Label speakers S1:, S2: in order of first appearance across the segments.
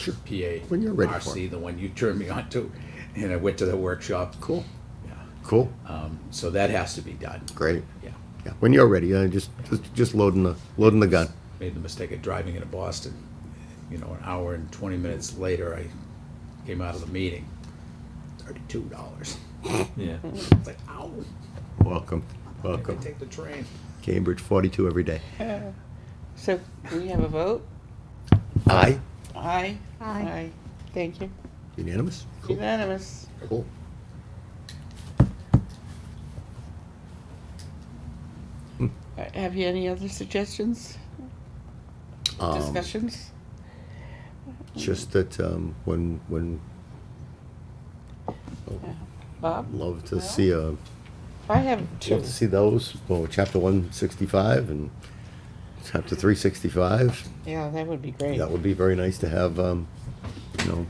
S1: Sure.
S2: PA.
S1: When you're ready for
S2: RC, the one you turned me on to, and I went to the workshop.
S1: Cool.
S2: Yeah.
S1: Cool.
S2: Um, so that has to be done.
S1: Great.
S2: Yeah.
S1: Yeah. When you're ready, uh, just, just just loading the loading the gun.
S2: Made the mistake of driving into Boston. You know, an hour and 20 minutes later, I came out of the meeting. $32.
S3: Yeah.
S2: It's like, ow,
S1: Welcome,
S2: I could
S1: welcome.
S2: take the train.
S1: Cambridge 42 every day.
S4: So we have a vote?
S1: Aye.
S4: Aye.
S5: Aye.
S4: Thank you.
S1: Unanimous. Cool.
S4: Unanimous.
S1: Cool.
S4: Uh, Have you any other suggestions,
S1: Um,
S4: discussions?
S1: Just that um, when when
S4: Bob?
S1: love to see a
S4: I have two.
S1: love to see those. Well, chapter 165 and chapter 365.
S4: Yeah, that would be great.
S1: That would be very nice to have, um, you know,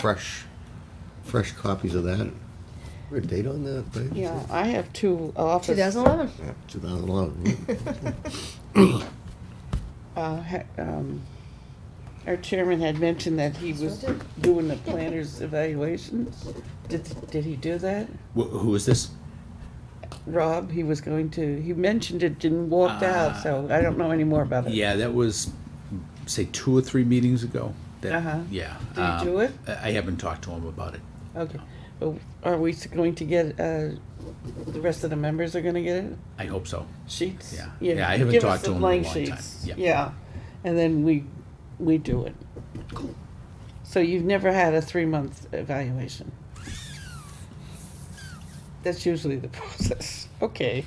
S1: fresh, fresh copies of that. We're a date on that, right?
S4: Yeah, I have two office.
S5: 2011.
S1: Yeah, 2011.
S4: uh, ha- um, Our chairman had mentioned that he was doing the planner's evaluations. Did, did he do that?
S2: Wh- who is this?
S4: Rob, he was going to, he mentioned it and walked out, so I don't know any more about it.
S2: Ah. Yeah, that was, say, two or three meetings ago. That,
S4: Uh-huh.
S2: Yeah. um,
S4: Did you do it?
S2: I I haven't talked to him about it.
S4: Okay, Well, are we s- going to get, uh, the rest of the members are gonna get it?
S2: I hope so.
S4: Sheets?
S2: Yeah. Yeah, I haven't
S4: give us
S2: talked to
S4: the
S2: him in a
S4: blank
S2: long time.
S4: sheets.
S2: Yeah.
S4: Yeah, and then we, we do it. So you've never had a three-month evaluation? That's usually the process. Okay,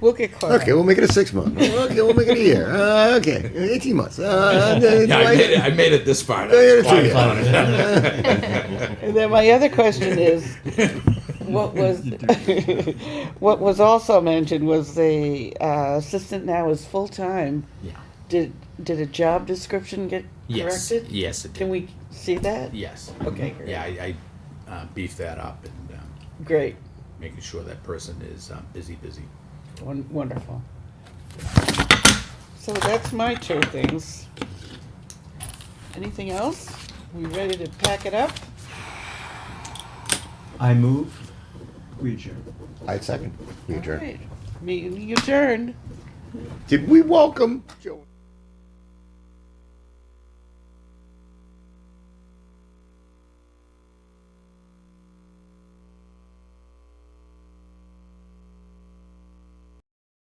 S4: we'll get caught
S1: Okay,
S4: up.
S1: we'll make it a six month. Okay, we'll make it a year. Uh, okay, 18 months. Uh, do
S2: Yeah, I
S1: I-
S2: made it, I made it this far.
S1: it's
S2: That's
S1: okay.
S2: fine.
S4: And then my other question is, what was, what was also mentioned was the uh, assistant now is full-time.
S2: Yeah.
S4: Did, did a job description get
S2: Yes.
S4: corrected?
S2: Yes, it did.
S4: Can we see that?
S2: Yes.
S4: Okay, great.
S2: Yeah, I, I uh, beefed that up and um,
S4: Great,
S2: making sure that person is um, busy, busy.
S4: Won- wonderful. So that's my two things. Anything else? We ready to pack it up?
S3: I move. We adjourn.
S1: I second. We adjourn.
S4: Alright, Meeting adjourned.
S1: Did we welcome Joe?